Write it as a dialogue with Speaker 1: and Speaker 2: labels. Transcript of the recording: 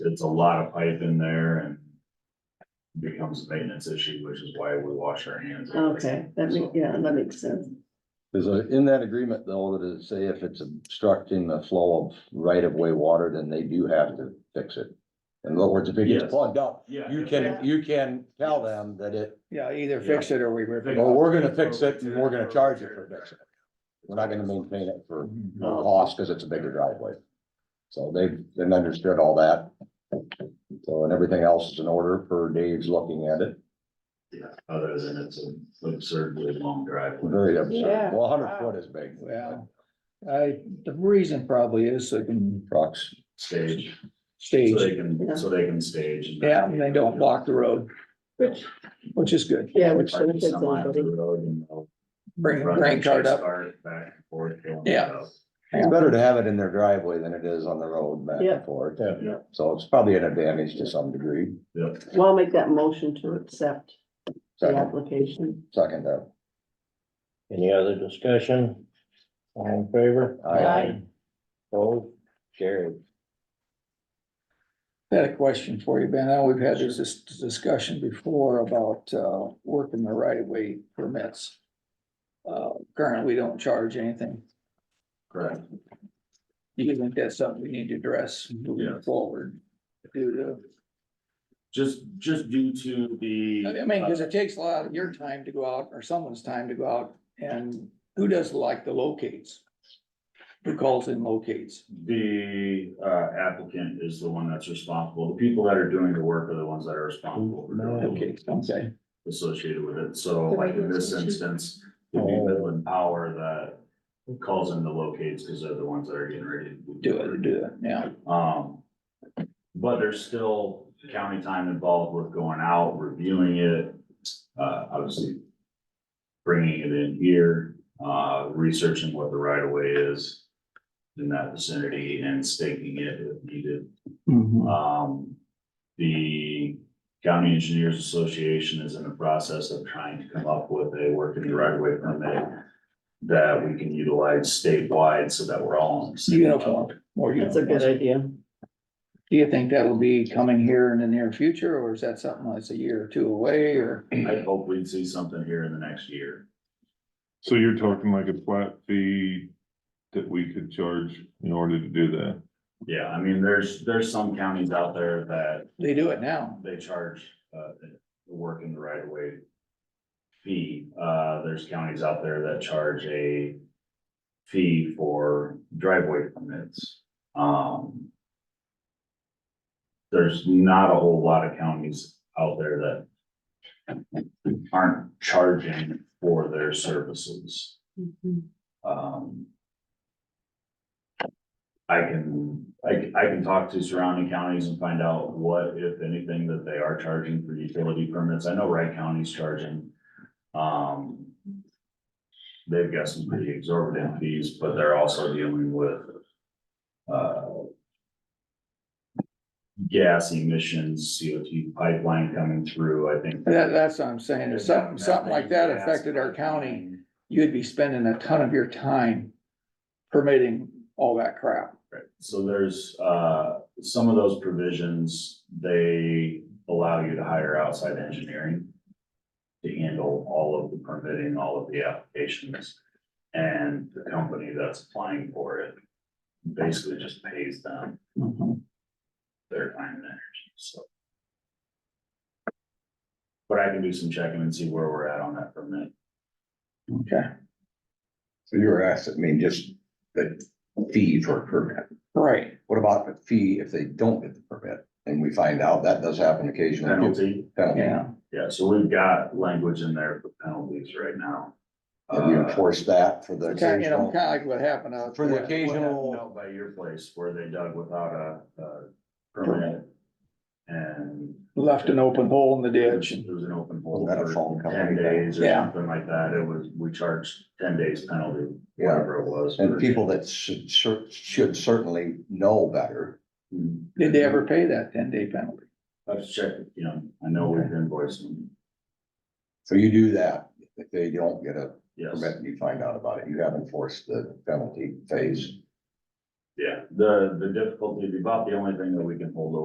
Speaker 1: it's a lot of pipe in there and. Becomes a maintenance issue, which is why we wash our hands. of it.
Speaker 2: Okay, that makes, yeah, that makes sense.
Speaker 3: Is there- in that agreement though, that it say if it's obstructing the flow of right of way water, then they do have to fix it. In other words, if it gets
Speaker 1: Yes.
Speaker 3: plugged up,
Speaker 1: Yeah.
Speaker 3: you can, you can tell them that it,
Speaker 4: Yeah, either fix it or we rip it.
Speaker 3: well, we're gonna fix it and we're gonna charge it for fixing it. We're not gonna maintain it for no cost, cause it's a bigger driveway. So they've, they've understood all that. So, and everything else is in order for Dave's looking at it,
Speaker 1: Yeah, other than it's an absurdly long driveway.
Speaker 3: very absurd,
Speaker 2: Yeah.
Speaker 3: well, hundred foot is big.
Speaker 4: Well, I, the reason probably is they can
Speaker 3: Trucks,
Speaker 1: Stage, so
Speaker 4: stage,
Speaker 1: they can, so they can stage. and-
Speaker 4: yeah, and they don't block the road,
Speaker 2: Which,
Speaker 4: which is good.
Speaker 2: yeah, which
Speaker 1: Park
Speaker 2: benefits
Speaker 1: some out of the
Speaker 2: everybody.
Speaker 1: road and they'll
Speaker 4: Bring a
Speaker 1: run
Speaker 4: grain
Speaker 1: the
Speaker 4: cart
Speaker 1: chase
Speaker 4: up.
Speaker 1: cart Back and forth. going
Speaker 4: Yeah.
Speaker 1: up.
Speaker 3: it's better to have it in their driveway than it is on the road back
Speaker 2: Yeah.
Speaker 3: and forth.
Speaker 2: Yeah.
Speaker 3: So it's probably an advantage to some degree.
Speaker 1: Yep,
Speaker 2: Well, I'll make that motion to accept the
Speaker 3: Second,
Speaker 2: application.
Speaker 3: second, uh,
Speaker 5: Any other discussion? All in favor?
Speaker 3: Aye.
Speaker 2: Aye.
Speaker 5: Both, carried.
Speaker 4: I Had a question for you, Ben. I know we've had this dis- discussion before about, uh, working the right of way permits. Uh, currently, we don't charge anything.
Speaker 1: correct.
Speaker 4: Do you think that's something we need to address moving
Speaker 1: Yes.
Speaker 4: forward? Due to,
Speaker 1: Just, just due to the.
Speaker 4: I mean, cause it takes a lot of your time to go out or someone's time to go out and who does like the locates? Who calls in locates?
Speaker 1: The uh, applicant is the one that's responsible. The people that are doing the work are the ones that are responsible for doing the work
Speaker 4: Locates, okay.
Speaker 1: associated with it. So like in this instance, it'd be
Speaker 4: Oh.
Speaker 1: Midland Power that calls in the locates because they're the ones that are getting ready to
Speaker 4: Do it, do it, yeah.
Speaker 1: Um, but there's still county time involved with going out, reviewing it, uh, obviously bringing it in here, uh, researching what the right of way is in that vicinity and staking it if needed. Um, the County Engineers Association is in the process of trying to come up with a work in the right of way permit that we can utilize statewide so that we're all. on the same level.
Speaker 4: Uniform, more
Speaker 2: That's a
Speaker 4: uniform.
Speaker 2: good idea.
Speaker 4: Do you think that'll be coming here in the near future, or is that something that's a year or two away, or?
Speaker 1: I hope we'd see something here in the next year.
Speaker 6: So you're talking like a flat fee that we could charge in order to do that?
Speaker 1: Yeah, I mean, there's, there's some counties out there that
Speaker 4: They do it now.
Speaker 1: they charge, uh, the work in the right of way fee. Uh, there's counties out there that charge a fee for driveway permits. Um, there's not a whole lot of counties out there that aren't charging for their services. Um. I can, I, I can talk to surrounding counties and find out what, if anything, that they are charging for utility permits. I know Wright County's charging. Um. They've got some pretty exorbitant fees, but they're also dealing with, uh. Gas emissions, CO2 pipeline coming through, I think.
Speaker 4: That, that's what I'm saying, if something, something like that affected our county, you'd be spending a ton of your time permitting all that crap.
Speaker 1: Right, so there's, uh, some of those provisions, they allow you to hire outside engineering to handle all of the permitting, all of the applications, and the company that's applying for it basically just pays them their time and energy, so. But I can do some checking and see where we're at on that permit.
Speaker 4: Okay,
Speaker 3: so you were asked, I mean, just the fee for a permit.
Speaker 4: right,
Speaker 3: What about the fee if they don't get the permit? And we find out that does happen occasionally.
Speaker 1: Penalty,
Speaker 3: Penalty.
Speaker 4: yeah,
Speaker 1: yeah, so we've got language in there for penalties right now.
Speaker 3: Have you
Speaker 1: Uh,
Speaker 3: enforced that for the
Speaker 4: kinda, you know,
Speaker 3: occasional?
Speaker 4: kinda like what happened out.
Speaker 3: For the
Speaker 4: what- what happened
Speaker 3: occasional-
Speaker 4: out-
Speaker 1: out by your place where they dug without a, a permit. And.
Speaker 4: Left an open hole in the ditch, and
Speaker 1: It was an open hole
Speaker 3: Was that a phone
Speaker 1: for
Speaker 3: company
Speaker 1: ten
Speaker 3: thing?
Speaker 1: days or
Speaker 4: Yeah.
Speaker 1: something like that. It was, we charged ten days penalty,
Speaker 3: Yeah.
Speaker 1: whatever it was.
Speaker 3: And
Speaker 1: for-
Speaker 3: people that should, cer- should certainly know better.
Speaker 1: Mm,
Speaker 4: did they ever pay that ten day penalty?
Speaker 1: I've checked, you know, I know we've invoiced them,
Speaker 3: So you do that. If they don't get a
Speaker 1: yes.
Speaker 3: permit, you find out about it. You have enforced the penalty phase.
Speaker 1: Yeah, the, the difficulty, about the only thing that we can hold over